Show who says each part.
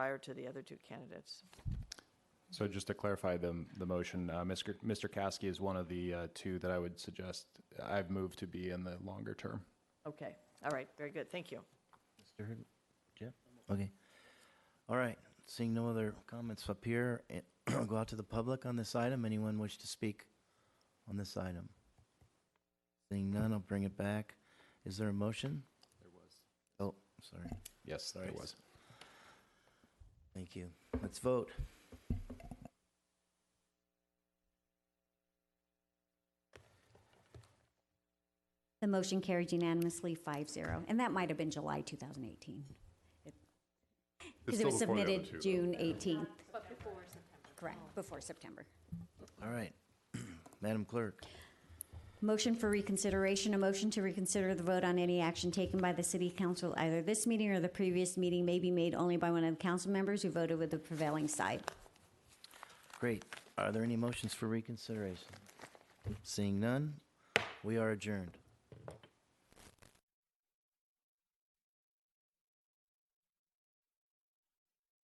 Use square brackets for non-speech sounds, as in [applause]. Speaker 1: prior to the other two candidates.
Speaker 2: So just to clarify the, the motion, uh, Mr. Mr. Caskey is one of the uh, two that I would suggest, I've moved to be in the longer term.
Speaker 1: Okay, all right, very good, thank you.
Speaker 3: Mr. Hurd- Jeff? Okay. All right, seeing no other comments up here, eh, [clears throat] go out to the public on this item. Anyone wish to speak on this item? Seeing none, I'll bring it back. Is there a motion? There was. Oh, sorry.
Speaker 2: Yes, there
Speaker 3: Sorry.
Speaker 2: was.
Speaker 3: Thank you. Let's vote.
Speaker 4: The motion carried unanimously, 5-0, and that might have been July 2018. Because it was submitted June 18th. But before September. Correct, before September.
Speaker 3: All right. [clears throat] Madam Clerk,
Speaker 4: Motion for reconsideration, a motion to reconsider the vote on any action taken by the city council either this meeting or the previous meeting may be made only by one of the council members who voted with the prevailing side.
Speaker 3: great. Are there any motions for reconsideration? Seeing none, we are adjourned.